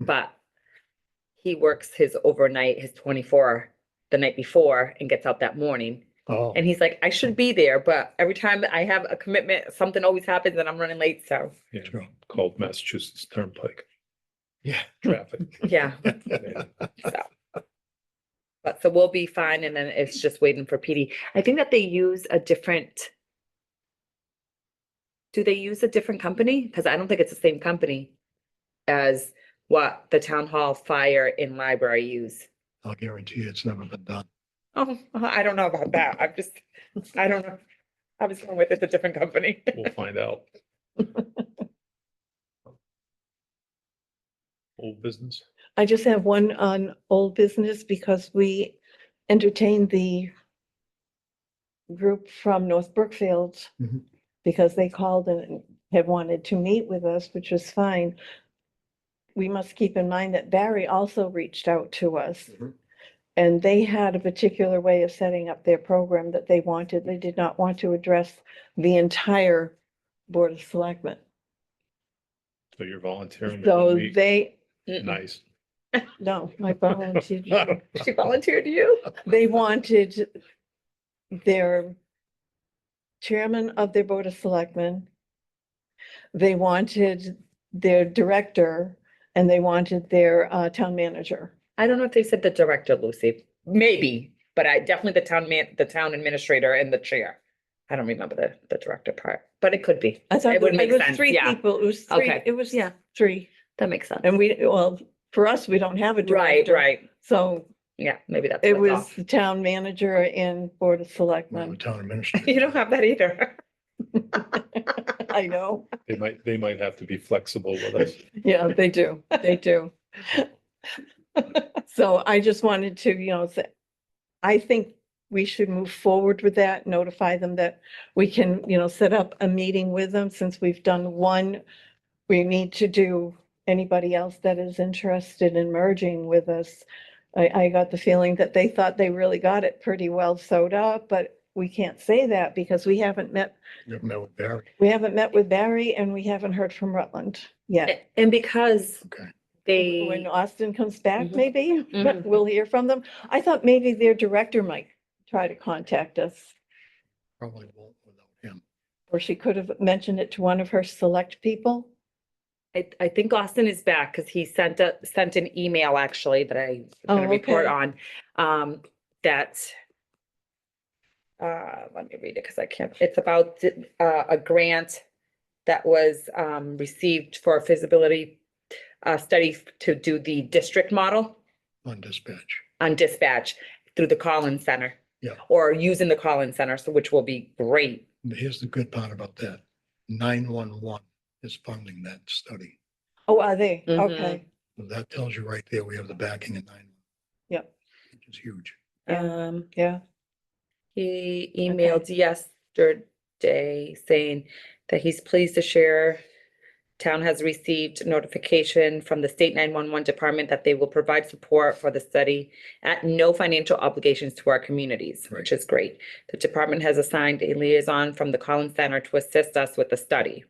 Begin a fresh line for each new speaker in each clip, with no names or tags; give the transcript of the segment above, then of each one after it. but he works his overnight, his twenty-four the night before and gets out that morning.
Oh,
And he's like, I should be there, but every time I have a commitment, something always happens and I'm running late. So,
Yeah,
True.
called Massachusetts Turnpike
yeah.
traffic.
yeah.
And
But so we'll be fine and then it's just waiting for PD. I think that they use a different. Do they use a different company? Because I don't think it's the same company as what the town hall, fire and library use.
I'll guarantee you it's never been done.
Oh, I don't know about that. I'm just, I don't know. I was going with it's a different company.
We'll find out. Old business.
I just have one on old business because we entertained the group from North Brookfield
Mhm.
because they called and had wanted to meet with us, which was fine. We must keep in mind that Barry also reached out to us.
Mhm.
And they had a particular way of setting up their program that they wanted. They did not want to address the entire Board of Selectmen.
So you're volunteering. to
So
meet.
they,
Mm-mm.
Nice.
no, I volunteered.
She volunteered you?
they wanted their chairman of their board of selectmen. They wanted their director and they wanted their uh, town manager.
I don't know if they said the director, Lucy. Maybe, but I definitely the town man, the town administrator and the chair. I don't remember the, the director part, but it could be.
I thought
It would
it
make
was
sense,
three
yeah.
people. It was three,
Okay.
it was, yeah, three.
That makes sense.
And we, well, for us, we don't have a
Right,
director.
right.
So
Yeah, maybe that's.
it
what's
was
off.
the town manager and board
Well,
of
the
selectmen.
Town administrator.
You don't have that either.
I know.
They might, they might have to be flexible with us.
Yeah, they do. They do. So I just wanted to, you know, say, I think we should move forward with that, notify them that we can, you know, set up a meeting with them since we've done one. We need to do anybody else that is interested in merging with us. I, I got the feeling that they thought they really got it pretty well sewed up, but we can't say that because we haven't met,
You've met with Barry.
we haven't met with Barry and we haven't heard from Rutland yet.
A- And because
Okay.
When
they,
Austin comes back,
Mhm.
maybe,
Mhm.
we'll hear from them. I thought maybe their director might try to contact us.
Probably won't without him.
Or she could have mentioned it to one of her select people.
I, I think Austin is back because he sent a, sent an email actually that I'm gonna
Oh,
report
okay.
on, um, that uh, let me read it because I can't, it's about the- uh, a grant that was um, received for a feasibility uh, study to do the district model
on dispatch.
on dispatch through the Collins Center.
Yeah.
Or using the Collins Center, so which will be great.
But Here's the good part about that. Nine one one is funding that study.
Oh, are they? Okay.
And That tells you right there, we have the backing of nine.
Yep.
Which is huge.
Yeah.
Um,
Yeah.
He emailed yesterday saying that he's pleased to share. Town has received notification from the state nine-one-one department that they will provide support for the study at no financial obligations to our communities, which is great. The department has assigned a liaison from the Collins Center to assist us with the study.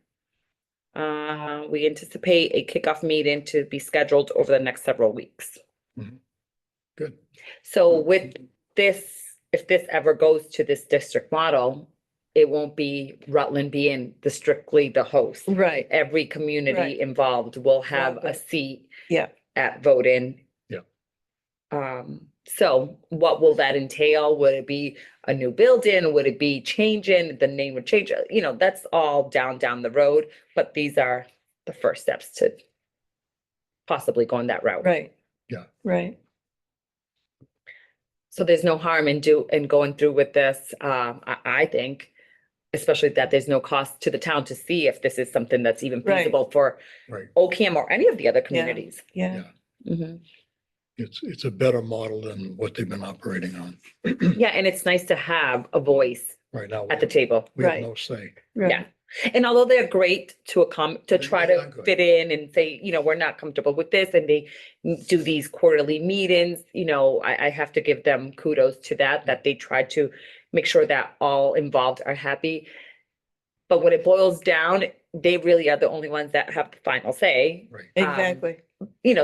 Uh, we anticipate a kickoff meeting to be scheduled over the next several weeks.
Good.
So
Mm-hmm.
with this, if this ever goes to this district model, it won't be Rutland being the strictly the host.
Right.
Every community
Mm-hmm. Right.
involved will have a
good.
seat.
Yeah.
At voting.
Yeah.
Um, so what will that entail? Would it be a new building? Would it be changing? The name would change, uh, you know, that's all down, down the road, but these are the first steps to possibly going that route.
Right.
Yeah.
Right.
So there's no harm in do, in going through with this, um, I, I think. Especially that there's no cost to the town to see if this is something that's even
Right.
feasible for
Right.
Ocam or any of the other communities.
Yeah.
Yeah.
Mhm.
It's, it's a better model than what they've been operating on
Yeah, and it's nice to have a voice
right now.
at the table.
We have
Right.
no say.
Right.
Yeah. And although they're great to accom, to
They
try
really are
to
good.
fit in and say, you know, we're not comfortable with this, and they do these quarterly meetings, you know, I, I have to give them kudos to
Mm-hmm.
that, that they try to make sure that all involved are happy. But when it boils down, they really are the only ones that have the final say,
Right.
Um,
Exactly.
you know,